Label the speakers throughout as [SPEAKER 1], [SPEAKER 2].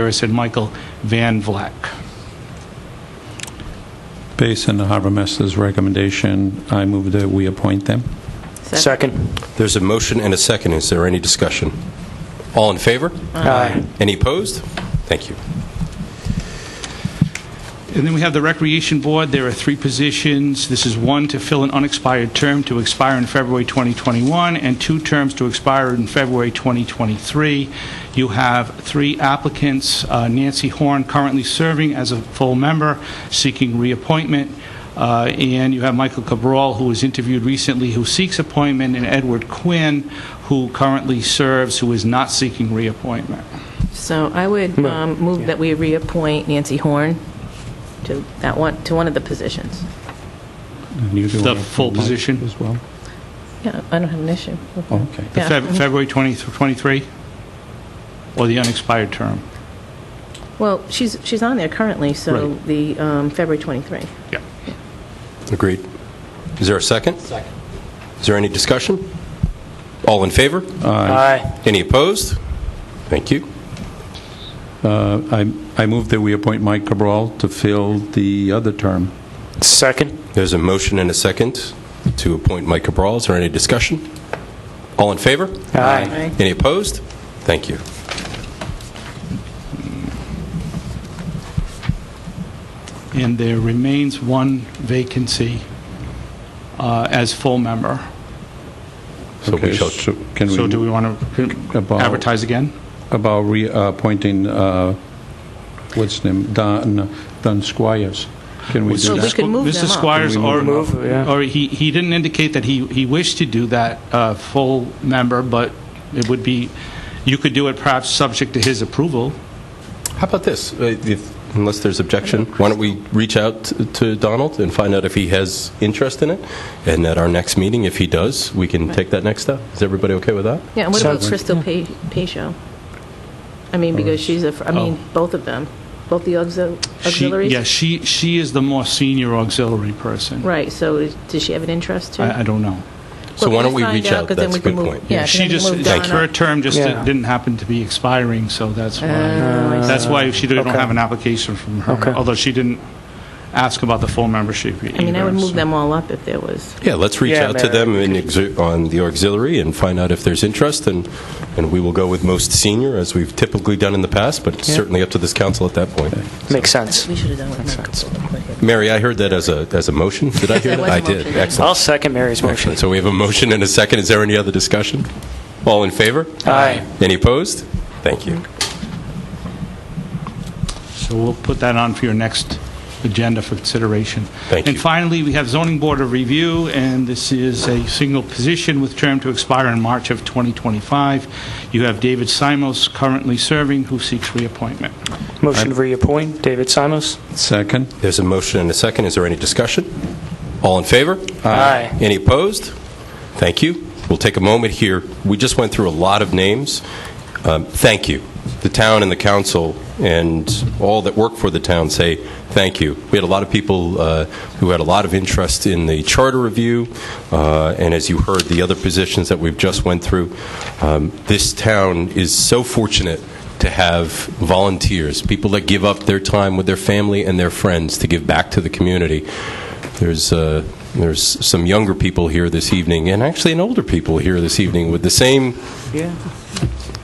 [SPEAKER 1] Harris and Michael Van Vleck.
[SPEAKER 2] Based on the harbor master's recommendation, I move that we appoint them.
[SPEAKER 3] Second.
[SPEAKER 4] There's a motion and a second. Is there any discussion? All in favor?
[SPEAKER 3] Aye.
[SPEAKER 4] Any opposed? Thank you.
[SPEAKER 1] And then we have the Recreation Board. There are three positions. This is one to fill an unexpired term to expire in February 2021, and two terms to expire in February 2023. You have three applicants. Uh, Nancy Horn, currently serving as a full member, seeking reappointment. Uh, And you have Michael Cabral, who was interviewed recently, who seeks appointment, and Edward Quinn, who currently serves, who is not seeking reappointment.
[SPEAKER 5] So I would um, move that we reappoint Nancy Horn to that one, to one of the positions.
[SPEAKER 2] And you do
[SPEAKER 1] The
[SPEAKER 2] want to
[SPEAKER 1] full
[SPEAKER 2] appoint
[SPEAKER 1] position.
[SPEAKER 2] As well? Oh,
[SPEAKER 5] Yeah, I don't have an issue. with that.
[SPEAKER 2] Okay.
[SPEAKER 1] The
[SPEAKER 5] Yeah.
[SPEAKER 1] Feb- February 2023? Or the unexpired term?
[SPEAKER 5] Well, she's, she's on there currently, so
[SPEAKER 1] Right.
[SPEAKER 5] the um, February 23.
[SPEAKER 1] Yeah.
[SPEAKER 4] Agreed. Is there a second? Second. Is there any discussion? All in favor?
[SPEAKER 3] Aye.
[SPEAKER 4] Any opposed? Thank you.
[SPEAKER 2] Uh, I I move that we appoint Mike Cabral to fill the other term.
[SPEAKER 3] Second.
[SPEAKER 4] There's a motion and a second to appoint Mike Cabral. Is there any discussion? All in favor?
[SPEAKER 3] Aye.
[SPEAKER 4] Any opposed? Thank you.
[SPEAKER 1] And there remains one vacancy uh, as full member.
[SPEAKER 4] So we
[SPEAKER 2] Okay,
[SPEAKER 4] shall-
[SPEAKER 2] so Can
[SPEAKER 1] So do we
[SPEAKER 2] we,
[SPEAKER 1] want to
[SPEAKER 2] About-
[SPEAKER 1] advertise again?
[SPEAKER 2] about reappointing, uh, what's his name, Don Don Squires? Can we
[SPEAKER 5] So
[SPEAKER 2] do
[SPEAKER 5] we
[SPEAKER 2] that?
[SPEAKER 5] could move them
[SPEAKER 1] Mr.
[SPEAKER 5] up.
[SPEAKER 1] Squires,
[SPEAKER 2] Can we
[SPEAKER 1] or,
[SPEAKER 3] move them up? Move, yeah.
[SPEAKER 1] or he, he didn't indicate that he, he wished to do that uh, full member, but it would be, you could do it perhaps subject to his approval.
[SPEAKER 4] How about this? Uh, if- Unless there's objection, why don't we reach out t- to Donald and find out if he has interest in it? And at our next meeting, if he does, we can take that next step. Is everybody okay with that?
[SPEAKER 5] Yeah, and what about
[SPEAKER 3] Sounds-
[SPEAKER 5] Crystal Pa- Pacho? I
[SPEAKER 1] Oh.
[SPEAKER 5] mean, because she's a, fr- I mean, both of them, both the auxil-
[SPEAKER 1] She-
[SPEAKER 5] auxiliaries?
[SPEAKER 1] Yeah, she, she is the more senior auxiliary person.
[SPEAKER 5] Right, so is- does she have an interest too?
[SPEAKER 1] I I don't know.
[SPEAKER 4] So
[SPEAKER 5] Well,
[SPEAKER 4] why don't we
[SPEAKER 5] find
[SPEAKER 4] reach out?
[SPEAKER 5] because then
[SPEAKER 4] That's
[SPEAKER 5] we
[SPEAKER 4] a
[SPEAKER 5] can
[SPEAKER 4] good
[SPEAKER 5] move-
[SPEAKER 4] point.
[SPEAKER 5] Yeah,
[SPEAKER 1] She
[SPEAKER 5] because
[SPEAKER 1] just,
[SPEAKER 5] then we move
[SPEAKER 1] her
[SPEAKER 5] Donna.
[SPEAKER 1] term just
[SPEAKER 3] Yeah.
[SPEAKER 1] didn't happen to be expiring, so that's why.
[SPEAKER 5] Oh, I see.
[SPEAKER 1] That's why she don't
[SPEAKER 3] Okay.
[SPEAKER 1] have an application from her,
[SPEAKER 3] Okay.
[SPEAKER 1] although she didn't ask about the full membership either.
[SPEAKER 5] I mean, I would
[SPEAKER 1] so-
[SPEAKER 5] move them all up if there was,
[SPEAKER 4] Yeah, let's reach
[SPEAKER 3] Yeah,
[SPEAKER 4] out to
[SPEAKER 3] Mary.
[SPEAKER 4] them in exi- on the auxiliary and find out if there's interest, and and we will go with most senior, as we've typically done in the past, but it's
[SPEAKER 3] Yeah.
[SPEAKER 4] certainly up to this council at that point.
[SPEAKER 3] Makes sense.
[SPEAKER 5] we should have done with Michael.
[SPEAKER 4] Mary, I heard that as a as a motion. Did I hear
[SPEAKER 5] Yes, that
[SPEAKER 4] that?
[SPEAKER 5] was a
[SPEAKER 4] I did.
[SPEAKER 5] motion, yeah.
[SPEAKER 4] Excellent.
[SPEAKER 3] I'll second Mary's motion.
[SPEAKER 4] Excellent. So we have a motion and a second. Is there any other discussion? All in favor?
[SPEAKER 3] Aye.
[SPEAKER 4] Any opposed? Thank you.
[SPEAKER 1] So we'll put that on for your next agenda for consideration.
[SPEAKER 4] Thank
[SPEAKER 1] And
[SPEAKER 4] you.
[SPEAKER 1] finally, we have zoning board of review, and this is a single position with term to expire in March of 2025. You have David Simos currently serving, who seeks reappointment.
[SPEAKER 3] Motion to reappoint David Simos.
[SPEAKER 2] Second?
[SPEAKER 4] There's a motion and a second. Is there any discussion? All in favor?
[SPEAKER 3] Aye.
[SPEAKER 4] Any opposed? Thank you. We'll take a moment here. We just went through a lot of names. Um, Thank you. The town and the council and all that work for the town say thank you. We had a lot of people uh, who had a lot of interest in the charter review, uh, and as you heard, the other positions that we've just went through. Um, This town is so fortunate to have volunteers, people that give up their time with their family and their friends to give back to the community. There's, uh, there's some younger people here this evening, and actually an older people here this evening with the same
[SPEAKER 3] Yeah.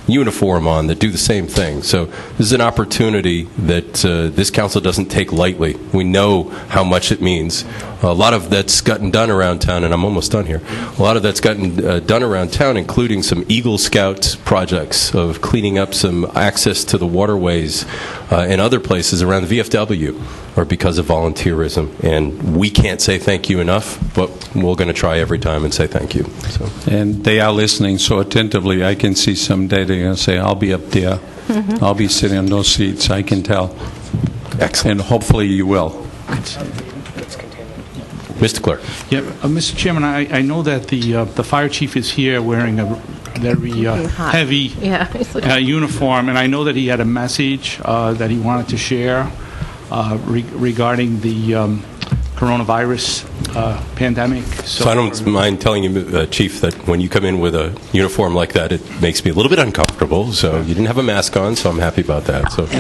[SPEAKER 4] uniform on that do the same thing. So this is an opportunity that uh, this council doesn't take lightly. We know how much it means. A lot of that's gotten done around town, and I'm almost done here. A lot of that's gotten uh, done around town, including some Eagle Scout projects of cleaning up some access to the waterways uh, and other places around the VFW, or because of volunteerism. And we can't say thank you enough, but we're going to try every time and say thank you. So.
[SPEAKER 2] And they are listening so attentively, I can see someday they're going to say, "I'll be up there, I'll be sitting on those seats," I can tell.
[SPEAKER 4] Excellent.
[SPEAKER 2] And hopefully you will.
[SPEAKER 4] Mr. Clerk.
[SPEAKER 1] Yep. Uh, Mr. Chairman, I I know that the uh, the fire chief is here wearing a very uh,
[SPEAKER 5] Looking hot.
[SPEAKER 1] heavy
[SPEAKER 5] Yeah. it's like-
[SPEAKER 1] uh, uniform, and I know that he had a message uh, that he wanted to share uh, re- regarding the um, coronavirus uh, pandemic.
[SPEAKER 4] So I don't mind telling you, uh, Chief, that when you come in with a uniform like that, it makes me a little bit uncomfortable. So you didn't have a mask on, so I'm happy about that. So